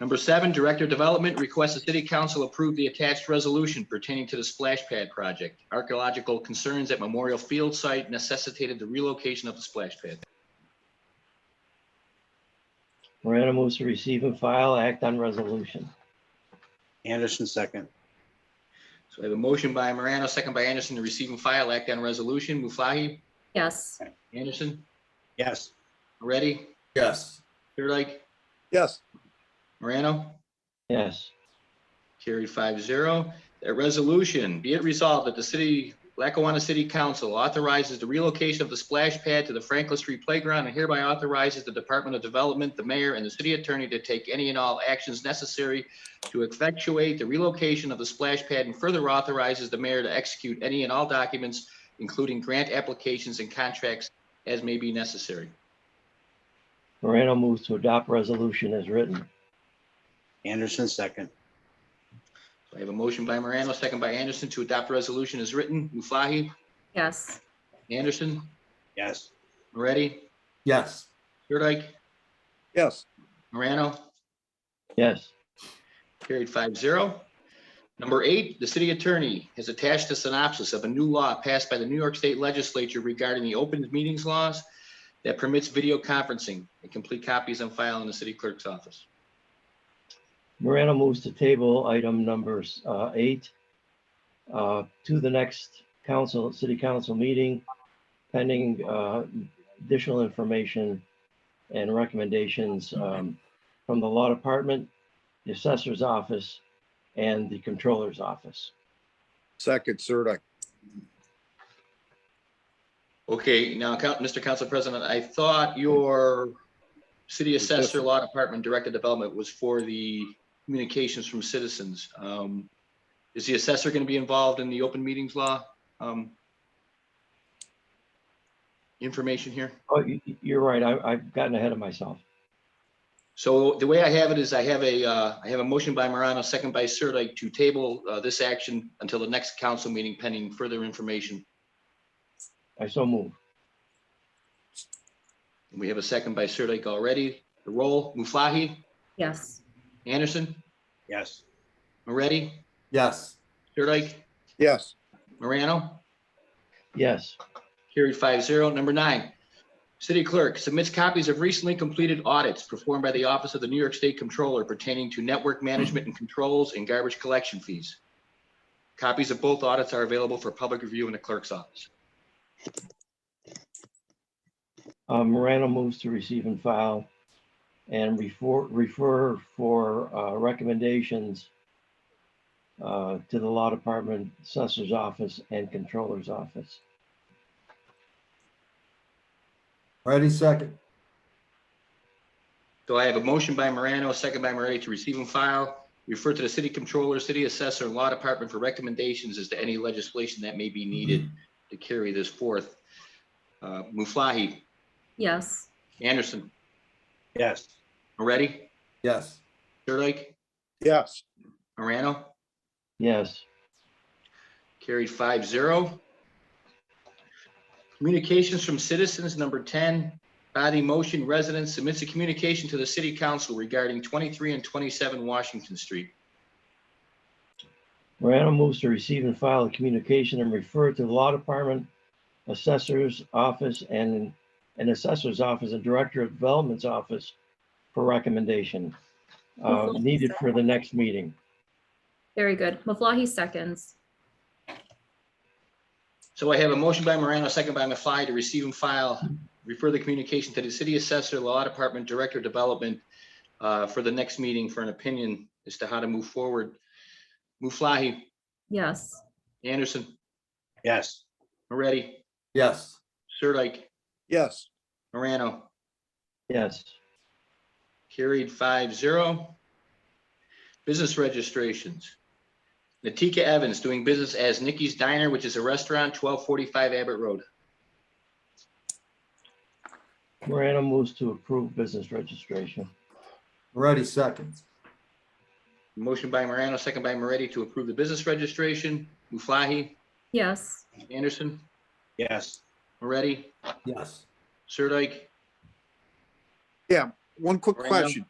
Number seven, Director of Development requests the City Council approve the attached resolution pertaining to the splash pad project. Archaeological concerns at Memorial Field site necessitated the relocation of the splash pad. Morano moves to receive and file act on resolution. Anderson second. So I have a motion by Morano, second by Anderson to receive and file act on resolution. Muflahi, yes, Anderson, Yes. Moretti, yes, Sirdike, yes, Morano? Yes, Carried five zero. A resolution, be it resolved that the city, Lackawanna City Council authorizes the relocation of the splash pad to the Franklin Street Playground and hereby authorizes the Department of Development, the mayor, and the city attorney to take any and all actions necessary to effectuate the relocation of the splash pad and further authorizes the mayor to execute any and all documents, including grant applications and contracts as may be necessary. Morano moves to adopt resolution as written. Anderson second. I have a motion by Morano, second by Anderson to adopt resolution as written. Muflahi, yes, Anderson, Yes. Moretti, yes, Sirdike, yes, Morano, Yes, carried 5-0. Number eight, the city attorney has attached a synopsis of a new law passed by the New York State Legislature regarding the open meetings laws that permits video conferencing. A complete copy is on file in the city clerk's office. Morano moves to table item numbers uh, eight uh, to the next council, city council meeting pending uh, additional information and recommendations um, from the law department, the assessor's office, and the controller's office. second, Sirdike, Okay, now, Coun- Mr. Council President, I thought your city assessor, law department, director of development was for the communications from citizens. Um, Is the assessor going to be involved in the open meetings law? um, Information here? Oh, you- you- you're right. I- I've gotten ahead of myself. So the way I have it is I have a, uh, I have a motion by Morano, second by Sirdike to table uh, this action until the next council meeting pending further information. I so move. And We have a second by Sirdike already. The roll, Muflahi, yes, Anderson, Yes. Moretti, yes, Sirdike, yes, Morano. Yes, Carried five zero. Number nine, city clerk submits copies of recently completed audits performed by the Office of the New York State Controller pertaining to network management and controls and garbage collection fees. Copies of both audits are available for public review in the clerk's office. uh, Morano moves to receive and file and refer, refer for, uh, recommendations uh, to the law department, assessor's office and controller's office. ready second, So I have a motion by Morano, a second by Moretti to receive and file, refer to the city controller, city assessor, and law department for recommendations as to any legislation that may be needed to carry this forth. Uh, Muflahi, yes, Anderson, Yes. Moretti, yes, Sirdike, yes, Morano? Yes, Carried five zero. Communications from citizens, number ten. Body motion resident submits a communication to the city council regarding twenty-three and twenty-seven Washington Street. Morano moves to receive and file a communication and refer to the law department, assessor's office and, and assessor's office and director of development's office for recommendation uh, needed for the next meeting. very good. Maflahe seconds, So I have a motion by Morano, second by Maflahe to receive and file, refer the communication to the city assessor, law department, director of development uh, for the next meeting for an opinion as to how to move forward. Muflahi, yes, Anderson, Yes. Moretti, yes, Sirdike, yes, Morano. Yes, Carried five zero. Business registrations. Natika Evans doing business as Nikki's Diner, which is a restaurant, twelve forty-five Abbott Road. Morano moves to approve business registration. ready second, Motion by Morano, second by Moretti to approve the business registration. Muflahi, yes, Anderson, Yes. Moretti, yes, Sirdike. Yeah. one quick Miranda? question.